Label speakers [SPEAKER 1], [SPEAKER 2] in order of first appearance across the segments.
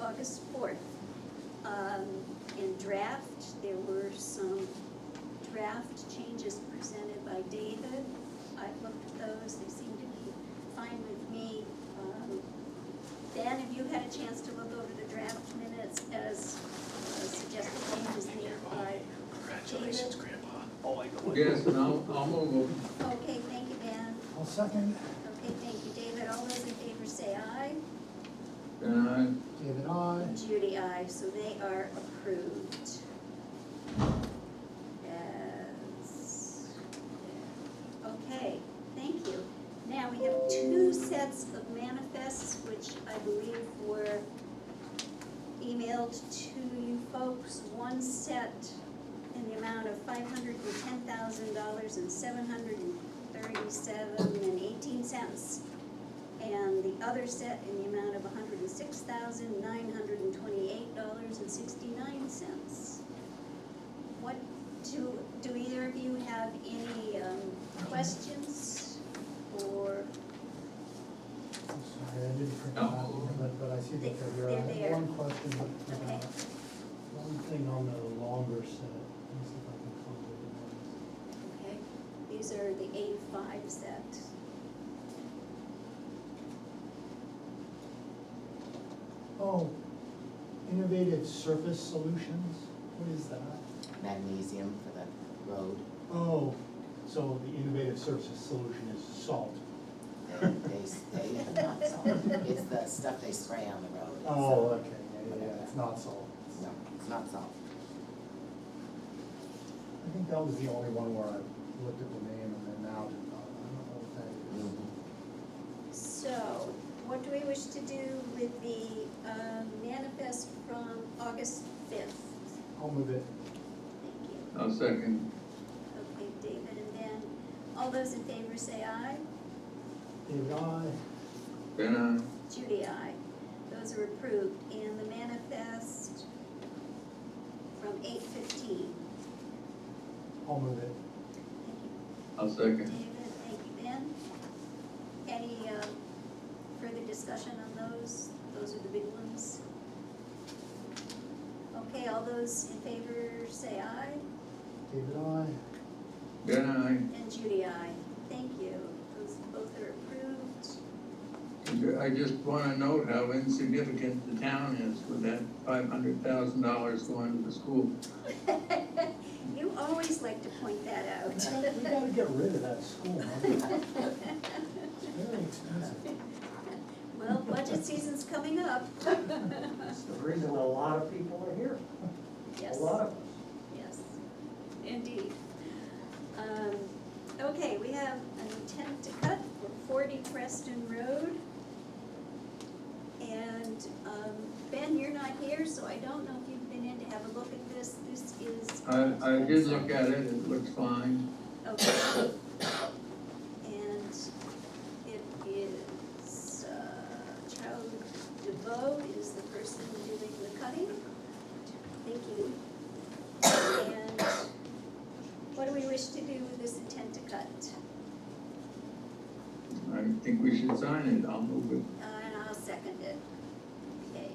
[SPEAKER 1] August fourth. Um, in draft, there were some draft changes presented by David. I looked at those, they seem to be fine with me. Um, Dan, have you had a chance to look over the draft minutes as uh, suggested changes made by?
[SPEAKER 2] Congratulations, Grandpa.
[SPEAKER 3] Oh, I know.
[SPEAKER 4] Yes, and I'll, I'll move them.
[SPEAKER 1] Okay, thank you, Dan.
[SPEAKER 5] I'll second
[SPEAKER 1] Okay, thank you, David. All those in favor say aye.
[SPEAKER 4] And I,
[SPEAKER 5] David, I.
[SPEAKER 1] Judy, aye, so they are approved. As, okay, thank you. Now, we have two sets of manifests, which I believe were emailed to you folks. One set in the amount of five hundred and ten thousand dollars and seven hundred and thirty-seven and eighteen cents and the other set in the amount of hundred and six thousand, nine hundred and twenty-eight dollars and sixty-nine cents. What, do, do either of you have any, um, questions or,
[SPEAKER 5] I'm sorry, I didn't print them
[SPEAKER 4] No.
[SPEAKER 5] out, but, but I see that they're here. I
[SPEAKER 1] They're
[SPEAKER 5] have
[SPEAKER 1] there.
[SPEAKER 5] one question, but, uh,
[SPEAKER 1] Okay.
[SPEAKER 5] one thing on the longer set, let me see if I can contact the ones.
[SPEAKER 1] okay, these are the A5 set.
[SPEAKER 5] Oh, innovative surface solutions, what is that?
[SPEAKER 2] Magnesium for the road,
[SPEAKER 5] Oh, so the innovative surface solution is salt.
[SPEAKER 2] they, they, s- they have not salt, it's the stuff they spray on the road. It's, uh,
[SPEAKER 5] Oh, okay, yeah, yeah, yeah, it's not salt.
[SPEAKER 2] No, it's not salt.
[SPEAKER 5] I think that was the only one where I looked at the name and then now, did not. I don't know what that is.
[SPEAKER 1] So, what do we wish to do with the, um, manifest from August fifth?
[SPEAKER 5] I'll move it.
[SPEAKER 1] Thank you.
[SPEAKER 4] I'll second.
[SPEAKER 1] Okay, David and Dan, all those in favor say aye.
[SPEAKER 5] David, I.
[SPEAKER 4] And I,
[SPEAKER 1] Judy, I. Those are approved, and the manifest from eight fifteen.
[SPEAKER 5] I'll move it.
[SPEAKER 1] Thank you,
[SPEAKER 4] I'll second.
[SPEAKER 1] David, thank you, Ben. Any, uh, further discussion on those? Those are the big ones. Okay, all those in favor say aye,
[SPEAKER 5] David, I.
[SPEAKER 4] And
[SPEAKER 1] and Judy, I. Thank you, those both are approved.
[SPEAKER 4] I, I just wanna note how insignificant the town is with that five hundred thousand dollars going to the school.
[SPEAKER 1] You always like to point that out.
[SPEAKER 5] We gotta get rid of that school, huh? It's very expensive.
[SPEAKER 1] Well, budget season's coming up.
[SPEAKER 3] That's the reason a lot of people are here, a
[SPEAKER 1] Yes,
[SPEAKER 3] lot of us.
[SPEAKER 1] yes, indeed. Um, okay, we have an intent to cut for forty Preston Road. And, um, Ben, you're not here, so I don't know if you've been in to have a look at this. This is.
[SPEAKER 4] I, I did look at it, it looks fine.
[SPEAKER 1] Okay. And it is, uh, Charlie DeVoe is the person doing the cutting. Thank you. And what do we wish to do with this intent to cut?
[SPEAKER 4] I think we should sign it, I'll move
[SPEAKER 1] Uh, And I'll second it. Okay.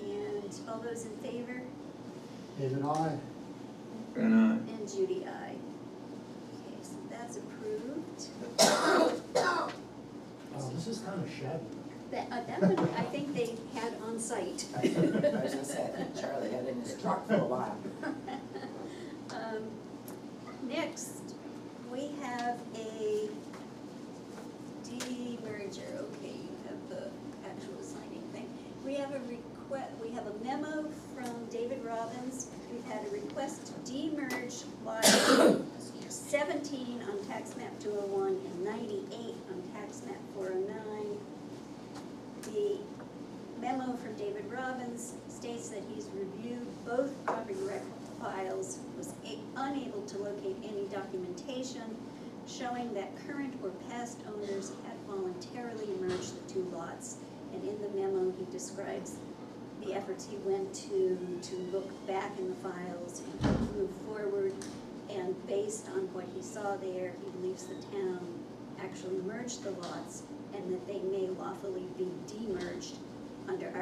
[SPEAKER 1] And all those in favor?
[SPEAKER 5] David, I.
[SPEAKER 4] it. And I,
[SPEAKER 1] And Judy, I. Okay, so that's approved.
[SPEAKER 5] Oh, this is kinda shabby.
[SPEAKER 1] That, uh, that one, I think they had on site.
[SPEAKER 2] I was gonna say, I think Charlie had it in his truck for a while.
[SPEAKER 1] Um, Next, we have a demerger, okay, you have the actual signing thing. We have a request, we have a memo from David Robbins, we've had a request to demerge lot seventeen on tax map two oh one and ninety-eight on tax map four oh nine. The memo from David Robbins states that he's reviewed both property record files, was a- unable to locate any documentation showing that current or past owners had voluntarily merged the two lots. And in the memo, he describes the efforts he went to, to look back in the files and to move forward. And based on what he saw there, he believes the town actually merged the lots and that they may lawfully be demerged under our